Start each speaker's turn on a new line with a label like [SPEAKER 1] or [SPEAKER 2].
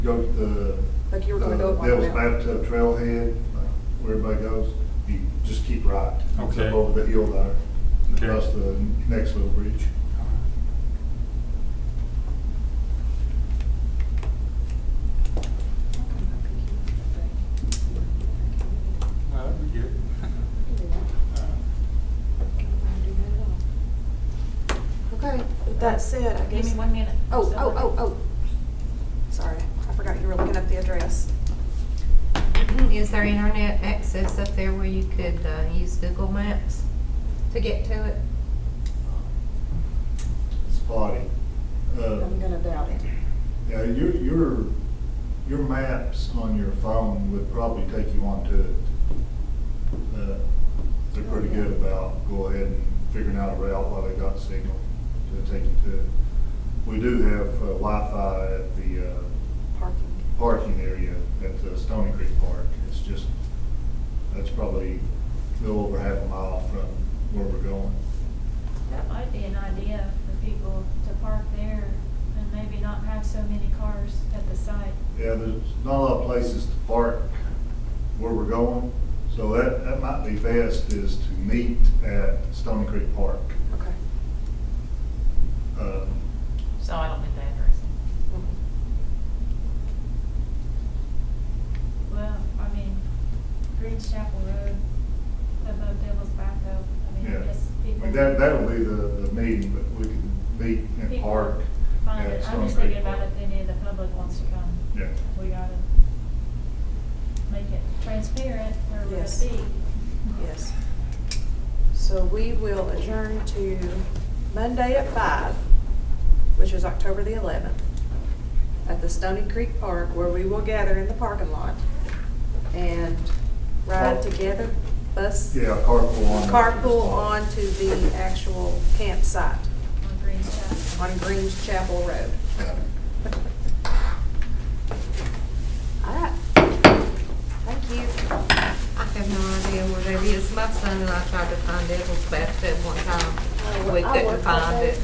[SPEAKER 1] go to the.
[SPEAKER 2] Like you were gonna go up
[SPEAKER 1] uh,
[SPEAKER 2] on
[SPEAKER 1] Devil's
[SPEAKER 2] the mountain.
[SPEAKER 1] Bathtub Trailhead, like where everybody goes, you just keep right. It's up
[SPEAKER 3] Okay.
[SPEAKER 1] Over the hill there, and
[SPEAKER 3] Okay.
[SPEAKER 1] across the next little bridge.
[SPEAKER 3] Well, that'd be good.
[SPEAKER 2] Okay, with that said, I guess.
[SPEAKER 4] Give me one minute.
[SPEAKER 2] Oh, oh, oh, oh. Sorry, I forgot you were looking up the address.
[SPEAKER 5] Is there internet access up there where you could uh, use Google Maps to get to it?
[SPEAKER 1] Spotty. Uh,
[SPEAKER 2] I'm gonna doubt it.
[SPEAKER 1] Yeah, your, your, your maps on your phone would probably take you onto it. Uh, They're pretty
[SPEAKER 2] Oh,
[SPEAKER 1] good about go ahead and figuring out a route while they got signal to take you to it. We do have uh, Wi-Fi at the uh,
[SPEAKER 2] Parking.
[SPEAKER 1] parking area at the Stony Creek Park. It's just, that's probably a little over half a mile from where we're going.
[SPEAKER 4] That might be an idea for people to park there and maybe not have so many cars at the site.
[SPEAKER 1] Yeah, there's not a lot of places to park where we're going, so that, that might be best is to meet at Stony Creek Park.
[SPEAKER 2] Okay.
[SPEAKER 1] Um,
[SPEAKER 6] So I don't think the address.
[SPEAKER 2] Mm-hmm.
[SPEAKER 4] Well, I mean, Green's Chapel Road, above Devil's Bathtub, I mean,
[SPEAKER 1] Yeah,
[SPEAKER 4] I guess
[SPEAKER 1] I
[SPEAKER 4] people.
[SPEAKER 1] mean, that, that'll be the, the meeting, but we can meet and
[SPEAKER 4] People
[SPEAKER 1] park
[SPEAKER 4] Find
[SPEAKER 1] at
[SPEAKER 4] it, I'm
[SPEAKER 1] Stony
[SPEAKER 4] just
[SPEAKER 1] Creek
[SPEAKER 4] thinking about
[SPEAKER 1] Park.
[SPEAKER 4] if any of the public wants to come.
[SPEAKER 1] Yeah,
[SPEAKER 4] We gotta make it transparent where we're
[SPEAKER 2] Yes.
[SPEAKER 4] gonna be.
[SPEAKER 2] Yes. So we will adjourn to Monday at five, which is October the eleventh, at the Stony Creek Park, where we will gather in the parking lot and ride
[SPEAKER 1] Car-
[SPEAKER 2] together, bus.
[SPEAKER 1] yeah, carpool on.
[SPEAKER 2] Carpool onto the actual campsite
[SPEAKER 4] On Green's Chapel.
[SPEAKER 2] on Greens Chapel Road.
[SPEAKER 1] Yeah.
[SPEAKER 2] All right. Thank you.
[SPEAKER 5] I have no idea where that is. My son and I tried to find Devil's Bathtub one time.
[SPEAKER 2] Oh, I
[SPEAKER 5] We
[SPEAKER 2] worked that
[SPEAKER 5] couldn't find
[SPEAKER 2] day.
[SPEAKER 5] it.